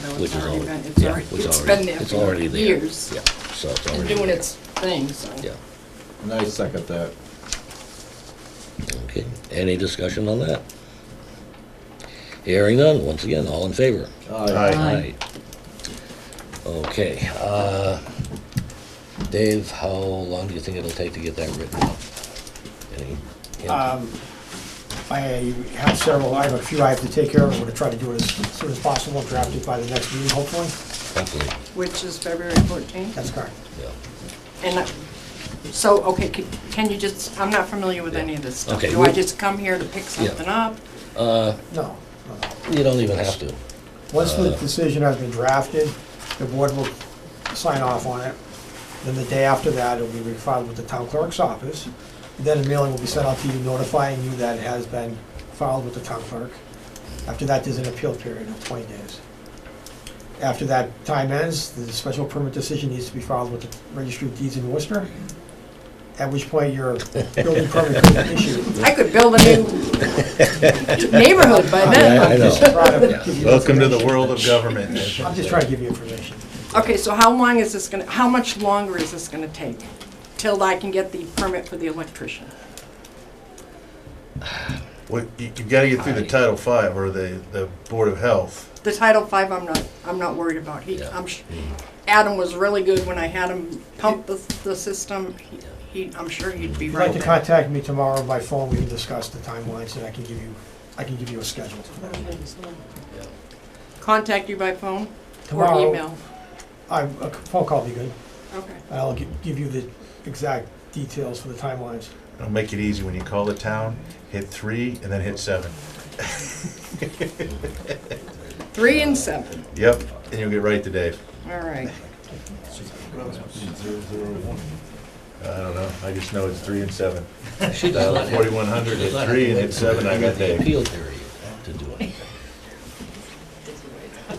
though Which it's is already already, been, it's yeah, already, which it's already, been there it's for already there. years. Yeah, so it's And already doing there. its thing, so. Yeah, And I second that. okay. Any discussion on that? Hearing none, once again, all in favor? Oh, Aye. Aye. Okay, uh, Dave, how long do you think it'll take to get that written up? Any hint? Um, I have several, I have a few I have to take care of, I'm gonna try to do it as soon as possible, draft it by the next meeting, hopefully. Hopefully, Which is February 14th. That's correct. yeah. And, uh, so, okay, c- can you just, I'm not familiar with any of this stuff. Okay, Do I we- just come here to pick something up? No, no, no. Uh, You don't even have to. Once the decision has been drafted, the board will sign off on it. Then the day after that, it'll be refiled with the town clerk's office. Then a mailing will be sent out to you notifying you that it has been filed with the town clerk. After that, there's an appeal period of 20 days. After that time ends, the special permit decision needs to be filed with the registry of deeds in Worcester, at which point your building permit could be issued. I could build a new neighborhood by Yeah, I then. I'm just know. trying Yeah. give you Welcome to the information. world of government. I'm just trying to give you information. Okay, so how long is this gonna, how much longer is this gonna take? Till I can get the permit for the electrician? What- You you gotta get through the Title Five or the, the Board of Health. The Title V, I'm not, I'm not worried about. He, Yeah. Mm-hmm. I'm, sh- Adam was really good when I had him pump the, the system. He- He, I'm sure he'd be You'd like right to there. contact me tomorrow by phone, we can discuss the timelines, and I can give you, I can give you a schedule. Contact you by phone or Tomorrow. email? I, a phone call will be good, Okay. I'll gi- give you the exact details for the timelines. It'll make it easy when you call the town, hit three and then hit seven. Three and seven, Yep, and you'll get right to Dave. all right. I don't know, I just know it's three and seven. She does Dial not have, forty-one hundred, does hit not have three and to hit wait seven, I until got the Dave. appeal period to do it.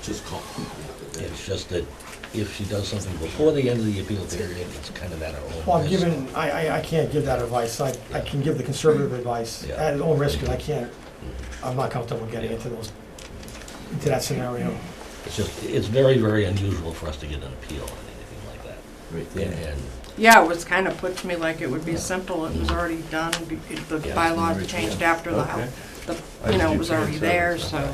Just call. It's just that if she does something before the end of the appeal period, it's kind of at her own risk. Well, I'm giving, I, I, I can't give that advice, I, I can give the conservative advice Yeah. at its own risk, because I can't, I'm not comfortable getting into those, into that scenario. It's just, it's very, very unusual for us to get an appeal on anything like that. And- And Yeah, it was kind of put to me like it would be simple, it was already done, be- the Yeah. bylaws changed after the, house. the, you know, it was already there, so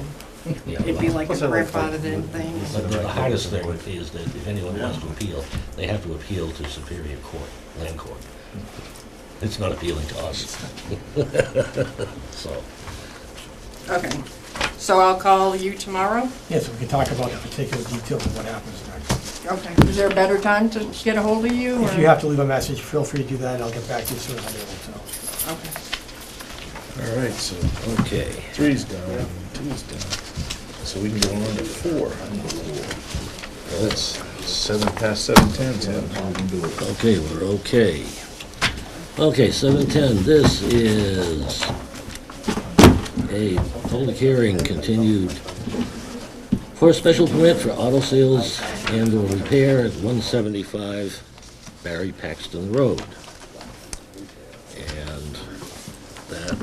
Yeah, it'd be well, like a grandfathered in thing. But the hardest thing is that if anyone wants to appeal, they have to appeal to Superior Court, Land Court. It's not appealing to us. So, Okay, so I'll call you tomorrow? Yeah, so we can talk about the particular details of what happens next. Okay, is there a better time to get a hold of you? If or- you have to leave a message, feel free to do that, and I'll get back to you as soon as I'm able to. Okay. All right, so okay, three's down, two's down. So we can go on to four. That's seven past seven ten, Tim. okay, we're okay. Okay, seven ten, this is a public hearing continued for a special permit for auto sales and or repair at one seventy-five Barry Paxton Road. And that,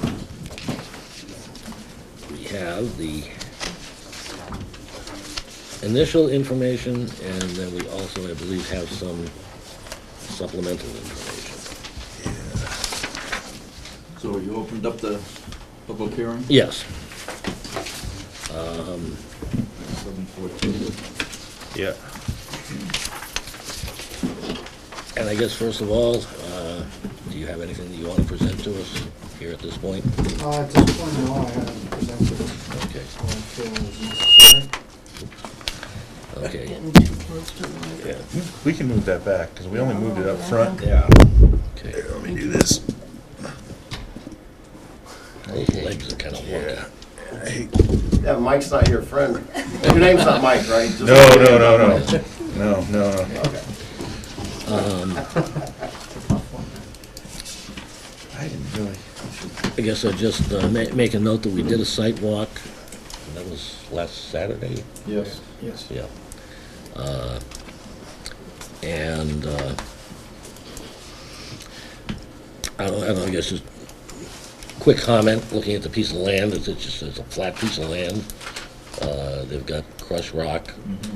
we have the initial information, and then we also, I believe, have some supplemental information. So you opened up the public hearing? Yes, Seven fourteen. Yeah. and I guess first of all, uh, do you have anything that you want to present to us here at this point? Uh, At this point, no, I haven't presented it, Okay, so I feel it was necessary. okay, Yeah, we can move that back, because we only moved it up front. Yeah. okay. Let me do this. Those legs are kind of wonky. Yeah, Mike's not your friend. Your name's not Mike, right? Just- No, no, no, no, no, no, no. I didn't really. I guess I just uh, ma- make a note that we did a site walk, and that was last Saturday? Yes. Yes. Yeah. Uh, And, uh, I don't, I don't, I guess just quick comment, looking at the piece of land, it's, it's just, it's a flat piece of land. Uh, They've got Crush Rock